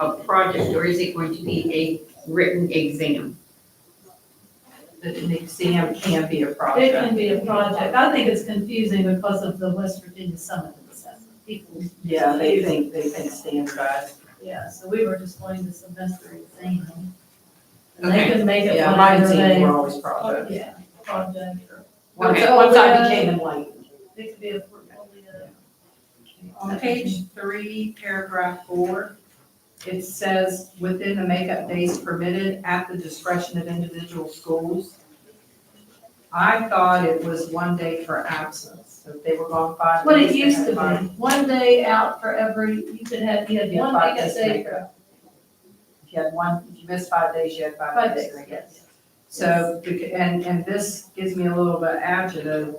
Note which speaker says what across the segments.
Speaker 1: a project, or is it going to be a written exam?
Speaker 2: that an exam can be a
Speaker 3: It
Speaker 2: project.
Speaker 3: can be a project. I think it's confusing because of the West Virginia Summit assessment. People,
Speaker 2: Yeah, they think, they think standardized.
Speaker 3: yeah, so we were just going to semester exam. And they
Speaker 1: Okay.
Speaker 3: could make it
Speaker 2: Yeah, my
Speaker 3: whatever
Speaker 2: team
Speaker 3: they,
Speaker 2: were always project.
Speaker 3: yeah, project or
Speaker 2: Once,
Speaker 1: Okay.
Speaker 2: once I became enlightened.
Speaker 3: it could be a portfolio.
Speaker 2: On page three, paragraph four, it says, within the makeup days permitted at the discretion of individual schools. I thought it was one day for absence, So if they were gone five days.
Speaker 3: What it
Speaker 2: they
Speaker 3: used
Speaker 2: had
Speaker 3: to
Speaker 2: five.
Speaker 3: be, one day out for every, you could have, you had
Speaker 2: Yeah,
Speaker 3: one
Speaker 2: five
Speaker 3: big
Speaker 2: days
Speaker 3: day
Speaker 2: makeup.
Speaker 3: for
Speaker 2: If you had one, if you missed five days, you had
Speaker 3: five
Speaker 2: five
Speaker 3: days,
Speaker 2: days. I guess.
Speaker 3: yes.
Speaker 2: So, beca- and, and this gives me a little bit adjective,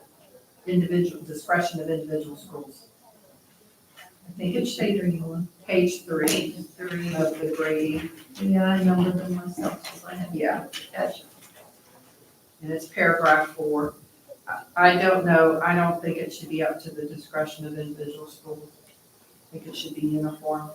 Speaker 2: individual, discretion of individual schools. I think it
Speaker 3: Which
Speaker 2: should
Speaker 3: page are you on?
Speaker 2: be page three
Speaker 3: Page three.
Speaker 2: of the Grady,
Speaker 3: Yeah, I numbered them myself, because I had
Speaker 2: yeah.
Speaker 3: to catch.
Speaker 2: and it's paragraph four. I- I don't know, I don't think it should be up to the discretion of individual schools. I think it should be uniform.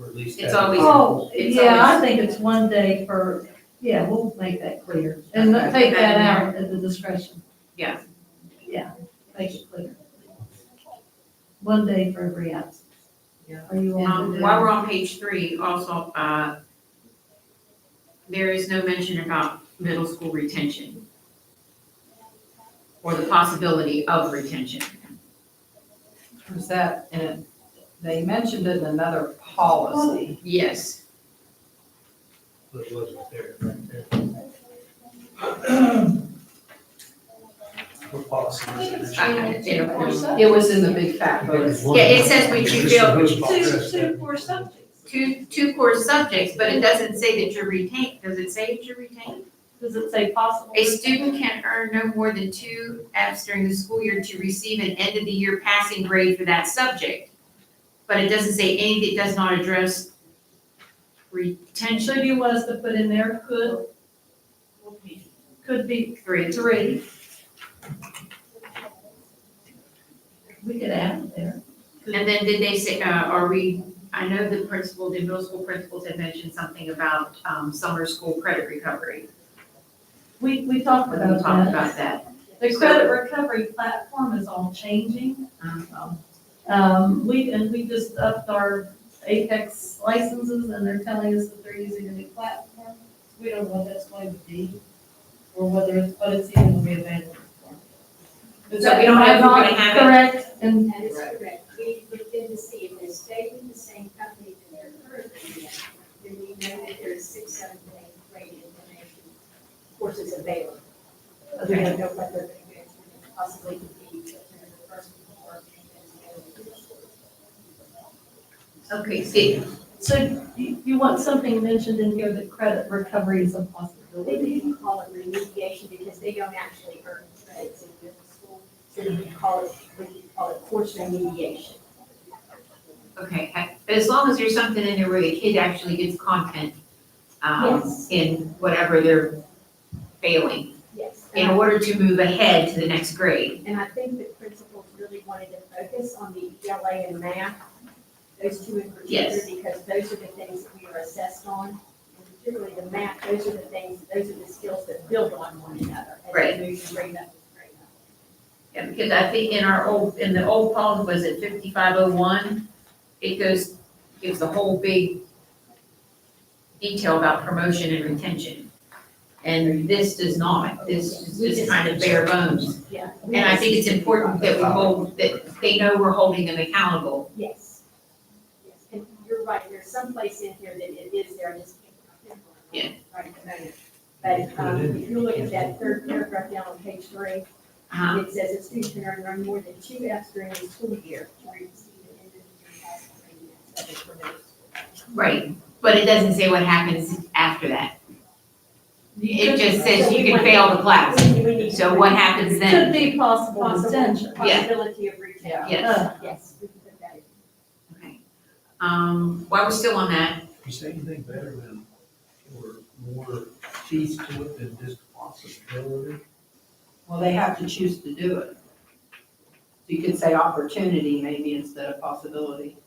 Speaker 4: Or at least.
Speaker 1: It's
Speaker 4: have-
Speaker 1: always-
Speaker 3: Oh,
Speaker 1: It's
Speaker 3: yeah, I
Speaker 1: always-
Speaker 3: think it's one day for, yeah, we'll make that clear, and let- take that out at the discretion.
Speaker 1: Yeah.
Speaker 3: Yeah, make it clear. One day for every absence.
Speaker 2: Yeah.
Speaker 3: Are you on?
Speaker 1: Um,
Speaker 3: to
Speaker 1: while
Speaker 3: do-
Speaker 1: we're on page three, also, uh, there is no mention about middle school retention or the possibility of retention.
Speaker 2: Was that, and it- they mentioned it in another policy.
Speaker 1: Yes,
Speaker 4: But it wasn't there, right there. What policy was it?
Speaker 1: I- I- it appears-
Speaker 2: It was in the big fat books.
Speaker 1: Yeah, it says we should build
Speaker 4: This is
Speaker 3: Two,
Speaker 4: who's
Speaker 3: two
Speaker 4: policy.
Speaker 3: core subjects.
Speaker 1: two, two core subjects, but it doesn't say that you're retained, does it say that you're retained?
Speaker 3: Does it say possible?
Speaker 1: A student can earn no more than two Fs during the school year to receive an end of the year passing grade for that subject. But it doesn't say anything, it does not address
Speaker 3: So
Speaker 1: retention
Speaker 3: you want us to put in there could, could be
Speaker 1: three.
Speaker 3: three. We could add it there.
Speaker 1: And then did they say, uh, are we, I know the principal, the middle school principals had mentioned something about, um, summer school credit recovery.
Speaker 3: We, we talked
Speaker 1: We
Speaker 3: about that.
Speaker 1: talked about that.
Speaker 3: The credit recovery platform is all changing. Um, we, and we just upped our Apex licenses and they're telling us that they're using a new platform. We don't know what that's going to be or whether, it's what it's even going to be available for. Is
Speaker 1: So
Speaker 3: that-
Speaker 1: we don't know if
Speaker 3: am I
Speaker 1: we're gonna have it?
Speaker 3: Correct, and
Speaker 5: That is correct. We looked in to see if they stayed with the same company that they're currently in. Then we know that there's six, seven, and eight grade information courses available. But We don't know what they're going to possibly be, if they're the first or the other.
Speaker 1: Okay, see,
Speaker 3: so you, you want something mentioned in here that credit recovery is a possibility?
Speaker 5: They didn't call it remediation because they don't actually earn credits in middle school. So they would call it, we would call it course remediation.
Speaker 1: okay, I- as long as there's something in there where the kid actually gets content, um,
Speaker 5: Yes.
Speaker 1: in whatever they're failing,
Speaker 5: Yes.
Speaker 1: in order to move ahead to the next grade.
Speaker 5: And I think the principals really wanted to focus on the ELA and math, those two in particular,
Speaker 1: Yes.
Speaker 5: because those are the things that we are assessed on. And particularly the math, those are the things, those are the skills that build on one another. as they
Speaker 1: Right.
Speaker 5: move from grade up to grade up.
Speaker 1: Yeah, because I think in our old, in the old policy, was it fifty-five oh one? It goes, gives the whole big detail about promotion and retention. And this does not, this is just kind of bare bones.
Speaker 5: Yeah.
Speaker 1: And I think it's important that we hold, that they know we're holding them accountable.
Speaker 5: Yes. Yes, And you're right, there's some place in here that it is there, I just can't.
Speaker 1: Yeah.
Speaker 5: Right at the moment. But um, if you look at that third paragraph down on page three,
Speaker 1: Uh-huh.
Speaker 5: It says a student can earn no more than two Fs during the school year to receive an individual pass grade that's subject for middle school.
Speaker 1: Right, but it doesn't say what happens after that. It just says you can fail the class.
Speaker 5: We- we need-
Speaker 1: So what happens then?
Speaker 3: Could be possible
Speaker 5: Possible,
Speaker 3: retention.
Speaker 5: possibility of retail.
Speaker 1: Yes,
Speaker 5: Yes, we can put that in.
Speaker 1: okay. Um, while we're still on that,
Speaker 4: You say anything better than, or more teeth to it than just possibility?
Speaker 2: Well, they have to choose to do it. You could say opportunity maybe instead of possibility.